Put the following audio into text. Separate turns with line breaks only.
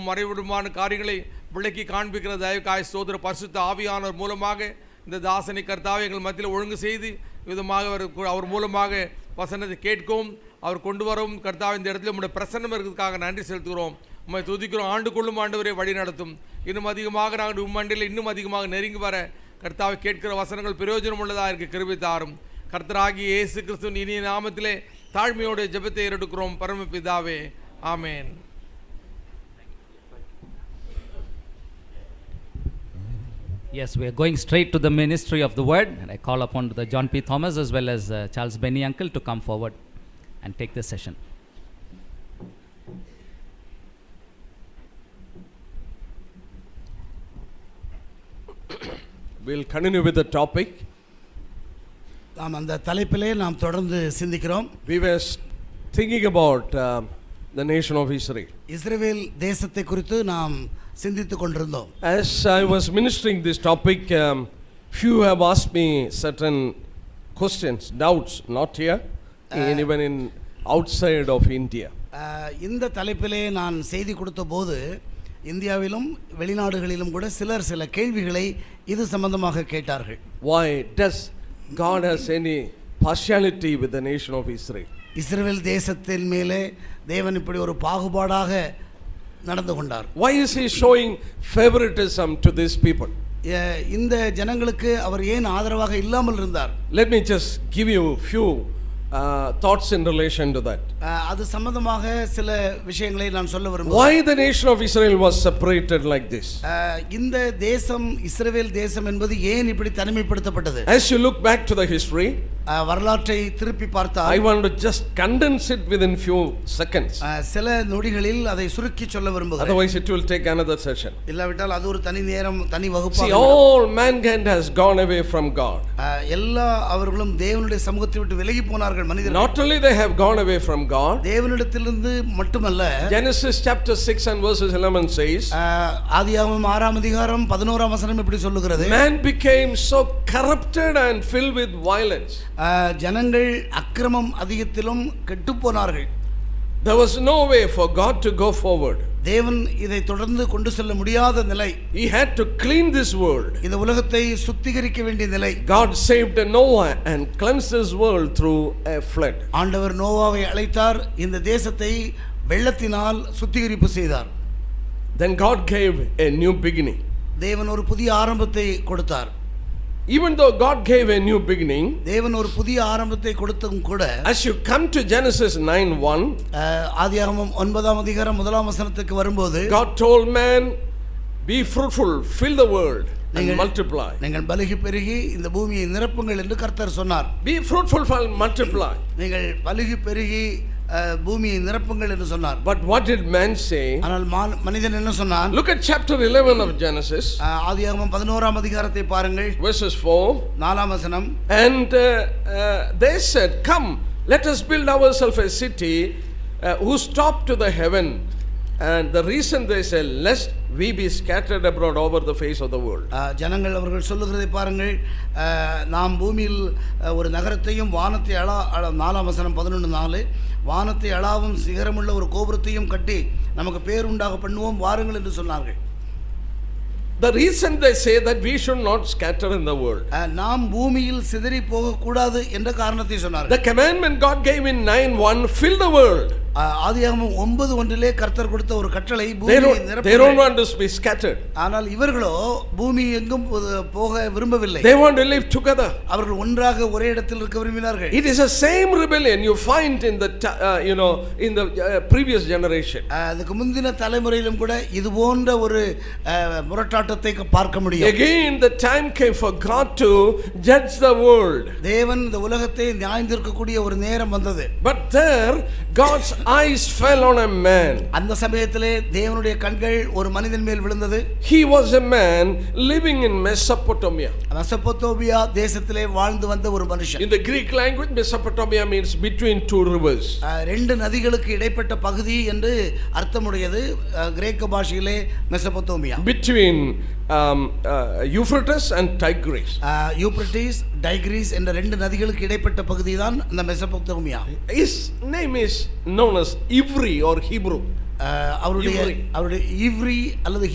மறைவிடமான காரியங்களை விளக்கி காண்பிக்கிற தயவுக்காய் சோதர பரிசுத்த ஆவியானவர் மூலமாக இந்த தாசனை கர்த்தாவை எங்கள் மத்தியில் ஒழுங்கு செய்து விதமாக அவர் அவர் மூலமாக வசனத்தை கேட்கவும் அவர் கொண்டு வரவும் கர்த்தாவை இந்த இடத்துல உங்களுடைய பிரசன்னம் இருக்கிறதுக்காக நன்றி செலுத்துகிறோம் உம்மை துதிக்கிறோம் ஆண்டுக்குள்ளும் ஆண்டவரை வழி நடத்தும் இன்னும் அதிகமாக நாங்கள் உம்மண்டியில் இன்னும் அதிகமாக நெருங்கி வர கர்த்தாவை கேட்கிற வசனங்கள் பிரயோஜனம் உள்ளதாக இருக்க கிருபை தாரும் கர்த்தராகி இயேசு கிறிஸ்துவின் இனிய நாமத்திலே தாழ்மையோடு ஜெபத்தை ஏறெடுக்கிறோம் பரமபிதாவே ஆமென்
Yes, we are going straight to the ministry of the word, and I call upon the John P. Thomas as well as uh, Charles Benny Uncle to come forward and take this session.
We'll continue with the topic.
நாம் அந்த தலைப்பிலே நாம் தொடர்ந்து சிந்திக்கிறோம்
We were s- thinking about um, the nation of Israel.
Israel தேசத்தை குறித்து நாம் சிந்தித்துக் கொண்டிருந்தோம்
As I was ministering this topic, um, few have asked me certain questions, doubts, not here, and even in outside of India.
அஹ், இந்த தலைப்பிலே நான் செய்தி கொடுத்த போது இந்தியாவிலும் வெளிநாடுகளிலும் கூட சிலர் சில கேள்விகளை இது சம்பந்தமாக கேட்டார்கள்
Why does God has any partiality with the nation of Israel?
Israel தேசத்தின் மேலே தேவன் இப்படி ஒரு பாகுபாடாக நடந்து கொண்டார்
Why is He showing favoritism to these people?
எ- இந்த ஜனங்களுக்கு அவர் ஏன் ஆதரவாக இல்லாமல் இருந்தார்
Let me just give you few uh, thoughts in relation to that.
அஹ், அது சம்பந்தமாக சில விஷயங்களை நான் சொல்ல விரும்புகிறேன்
Why the nation of Israel was separated like this?
அஹ், இந்த தேசம் இஸ்ரவேல் தேசம் என்பது ஏன் இப்படி தனிமைப்படுத்தப்பட்டது
As you look back to the history,
அஹ், வரலாற்றை திருப்பி
I
பார்த்தால்
want to just condense it within few seconds.
அஹ், சில நொடிகளில் அதை சுருக்கி சொல்ல விரும்புகிறேன்
Otherwise, it will take another session.
இல்லாவிட்டால் அது ஒரு தனி நேரம் தனி
See,
வகுப்பாக விடும்.
all mankind has gone away from God.
அஹ், எல்லா அவர்களும் தேவனுடைய சமூகத்தை விட்டு விலகி போனார்கள் மனிதர்கள்
Not only they have gone away from God,
தேவனிடத்திலிருந்து மட்டுமல்ல
Genesis chapter 6 and verses 11 says,
அஹ், ஆதியாகமம் ஆறாம் அதிகாரம் பதினோராம் வசனம் இப்படி சொல்லுகிறது
Man became so corrupted and filled with violence.
அஹ், ஜனங்கள் அக்கிரமம் அதிகத்திலும் கெட்டுப் போனார்கள்
There was no way for God to go forward.
தேவன் இதை தொடர்ந்து கொண்டு செல்ல முடியாத நிலை
He had to clean this world.
இந்த உலகத்தை சுத்திகரிக்க வேண்டிய நிலை
God saved Noah and cleansed his world through a flood.
ஆண்டவர் நோவாவை அழைத்தார் இந்த தேசத்தை வெள்ளத்தினால் சுத்திகரிப்பு செய்தார்
Then God gave a new beginning.
தேவன் ஒரு புதிய ஆரம்பத்தை கொடுத்தார்
Even though God gave a new beginning,
தேவன் ஒரு புதிய ஆரம்பத்தை கொடுத்தும் கூட
as you come to Genesis 9 1,
அஹ், ஆதியாகமம் ஒன்பதாம் அதிகாரம் முதலாம் வசனத்துக்கு வரும்போது
God told man, Be fruitful, fill the world, and
நீங்கள்-
multiply.
நீங்கள் பலுகி பெருகி இந்த பூமியை நிரப்புங்கள் என்று கர்த்தர் சொன்னார்
Be fruitful and multiply.
நீங்கள் பலுகி பெருகி அஹ், பூமியை நிரப்புங்கள் என்று சொன்னார்
But what did man say?
ஆனால் மான்- மனிதன் என்ன சொன்னான்
Look at chapter 11 of Genesis,
அஹ், ஆதியாகமம் பதினோராம் அதிகாரத்தை பாருங்கள்
verses 4.
நாலாம் வசனம்
And uh, uh, they said, Come, let us build ourselves a city uh, whose top to the heaven. And the reason they said, Lest we be scattered abroad over the face of the world.
ஆ, ஜனங்கள் அவர்கள் சொல்லுகிறதை பாருங்கள் ஆ, நாம் பூமியில் ஆ, ஒரு நகரத்தையும் வானத்தை அளா அள- நாலாம் வசனம் பதினொன்று நாலு வானத்தை அளாவும் சிகரமுள்ள ஒரு கோபுரத்தையும் கட்டி நமக்கு பேர் உண்டாக பண்ணுவோம் வாருங்கள் என்று சொன்னார்கள்
The reason they say that we should not scatter in the world.
ஆ, நாம் பூமியில் சிதறி போகக்கூடாது என்ற காரணத்தை சொன்னார்கள்
The commandment God gave in 9 1 fill the world.
ஆ, ஆதியாகமம் ஒன்பது ஒன்றிலே கர்த்தர் கொடுத்த ஒரு கட்டளை
They
பூமியை
don't, they don't
நிரப்புங்கள்.
want us to be scattered,
ஆனால் இவர்களோ பூமி எங்கும் போ- போக விரும்பவில்லை
they want to live together.
அவர்கள் ஒன்றாக ஒரே இடத்தில் இருக்க விரும்பினார்கள்
It is the same rebellion you find in the t- uh, you know in the uh, previous generation.
அஹ் அதுக்கு முந்தின தலைமுறையிலும் கூட இது போன்ற ஒரு அஹ், முரட்டாட்டத்தை க- பார்க்க முடியும்
Again, the time came for God to judge the world.
தேவன் இந்த உலகத்தை நியாய்ந்திருக்கக்கூடிய ஒரு நேரம் வந்தது
But there, God's eyes fell on a man.
அந்த சமயத்திலே தேவனுடைய கண்கள் ஒரு மனிதன் மேல் விழுந்தது
He was a man living in Mesopotamia.
மெசபொத்தோபியா தேசத்திலே வாழ்ந்து வந்த ஒரு மனுஷன்
In the Greek language, Mesopotamia means between two rivers.
அஹ், ரெண்டு நதிகளுக்கு இடைப்பட்ட பகுதி என்று அர்த்தமுடையது அஹ், கிரேக்க பாஷையிலே Mesopotamia
Between um, uh, Euphrates and Tigris.
அஹ், யூப்ரட்டிஸ் டைக்ரீஸ் என்ற ரெண்டு நதிகளுக்கு இடைப்பட்ட பகுதி தான் இந்த மெசபொத்தோமியா
His name is known as Ivri or Hebrew.
அஹ், அவருடைய
இவ்ரி.
அவருடைய இவ்ரி அல்லது